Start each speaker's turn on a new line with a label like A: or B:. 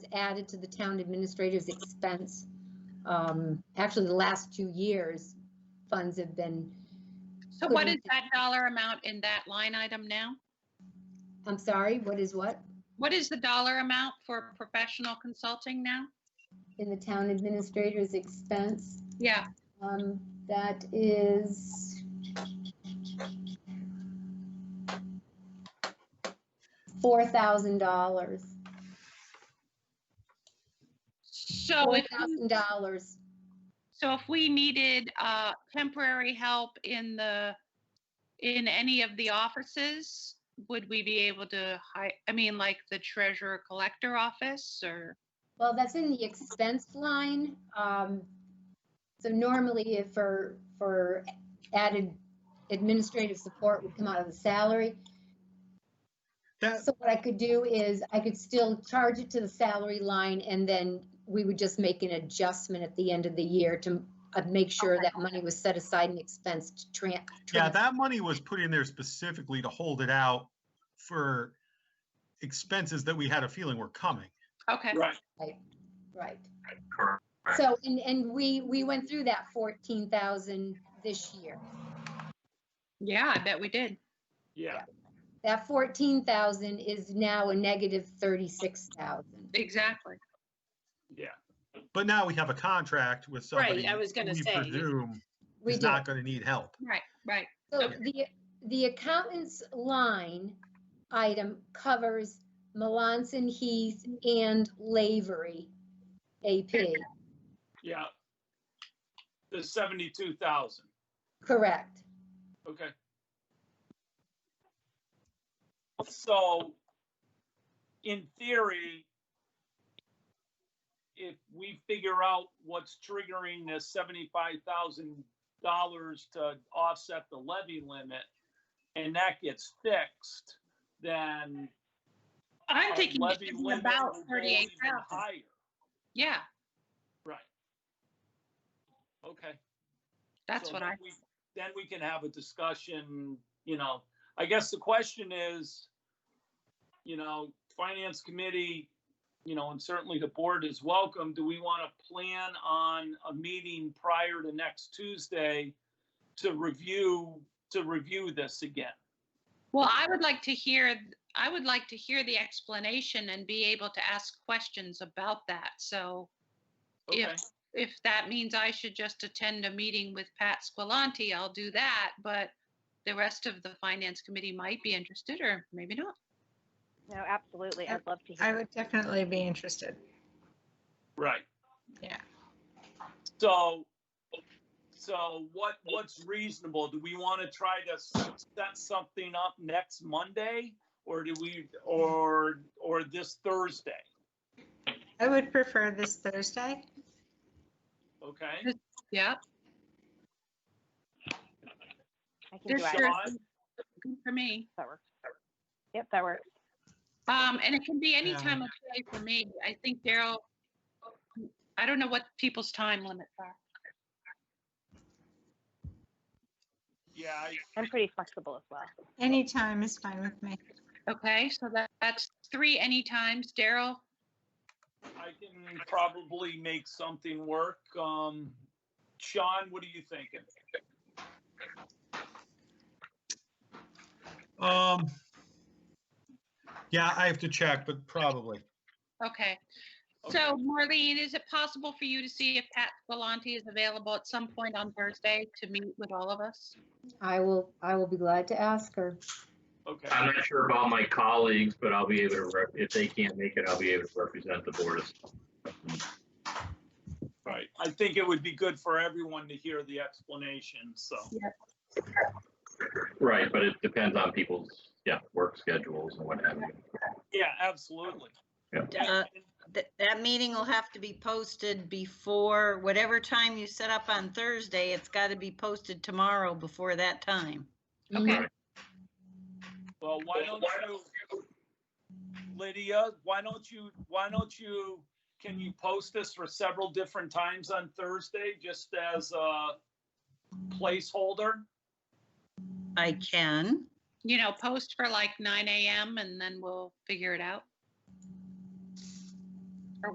A: added to the town administrator's expense. Um, Actually, the last two years, funds have been,
B: So what is that dollar amount in that line item now?
A: I'm sorry, what is what?
B: What is the dollar amount for professional consulting now?
A: In the town administrator's expense?
B: Yeah,
A: Um, that is. Four thousand dollars,
B: so
A: four
B: if,
A: thousand dollars,
B: so if we needed uh, temporary help in the, in any of the offices, would we be able to hi, I mean, like the treasurer collector office or?
A: well, that's in the expense line, um. So normally if for, for added administrative support would come out of the salary.
C: That,
A: So what I could do is I could still charge it to the salary line and then we would just make an adjustment at the end of the year to uh, make sure that money was set aside and expensed to tran-
C: yeah,
A: transfer.
C: that money was put in there specifically to hold it out for expenses that we had a feeling were coming.
B: Okay,
D: Right,
A: Right.
D: correct.
A: So, and, and we, we went through that 14,000 this year.
B: yeah, I bet we did.
D: Yeah,
A: That 14,000 is now a negative 36,000.
B: Exactly.
D: yeah.
C: But now we have a contract with somebody.
E: Right, I was gonna
C: who we
E: say, you-
C: presume
A: We
C: is
A: do.
C: not gonna need help.
B: Right, right.
A: So
B: Okay.
A: the, the accountant's line item covers Melanson Heath and Lavery AP,
D: Yeah. The seventy-two thousand,
A: correct?
D: okay. So, in theory, if we figure out what's triggering the seventy-five thousand dollars to offset the levy limit, and that gets fixed, then
B: I'm
D: our
B: thinking
D: levy
B: it's
D: limit
B: about
D: will go even
B: 38,000.
D: Higher,
B: Yeah,
D: right. Okay.
B: that's
D: So
B: what
D: then
B: I,
D: we- Then we can have a discussion, you know, I guess the question is, you know, finance committee, you know, and certainly the board is welcome. Do we want to plan on a meeting prior to next Tuesday to review, to review this again?
B: well, I would like to hear, I would like to hear the explanation and be able to ask questions about that. So
D: Okay,
B: if, if that means I should just attend a meeting with Pat Squilanti, I'll do that. But the rest of the finance committee might be interested or maybe not.
F: No, absolutely. I'd love to
E: I
F: hear.
E: would definitely be interested.
D: right.
E: Yeah.
D: So, so what, what's reasonable? Do we want to try to s- set something up next Monday? Or do we, or, or this Thursday?
E: I would prefer this Thursday.
D: Okay?
B: Yeah,
F: I can
B: there's
F: do either.
B: sure
F: If
D: July.
B: for me.
F: That works. Yep, that works.
B: Um, and it can be any
C: Yeah.
B: time of day for me. I think Daryl, I don't know what people's time limits are.
D: Yeah, I-
F: I'm pretty flexible as well.
E: Any time is fine with me.
B: Okay, so that, that's three any times. Daryl,
D: I can probably make something work. Um, Sean, what are you thinking?
C: Um, yeah, I have to check, but probably.
B: okay. So Marlene, is it possible for you to see if Pat Galante is available at some point on Thursday to meet with all of us?
A: I will, I will be glad to ask her.
D: Okay,
G: I'm not sure about my colleagues, but I'll be able to, rep- if they can't make it, I'll be able to represent the board.
D: right. I think it would be good for everyone to hear the explanation, so.
G: Right, but it depends on people's, yeah, work schedules and what have you.
D: Yeah, absolutely.
G: Yeah.
D: Yeah,
H: That, that meeting will have to be posted before, whatever time you set up on Thursday, it's got to be posted tomorrow before that time.
A: Mm-hmm.
B: Okay,
D: Well, why don't you, Lydia, why don't you, why don't you, can you post this for several different times on Thursday, just as a placeholder?
H: I can.
B: you know, post for like nine AM and then we'll figure it out.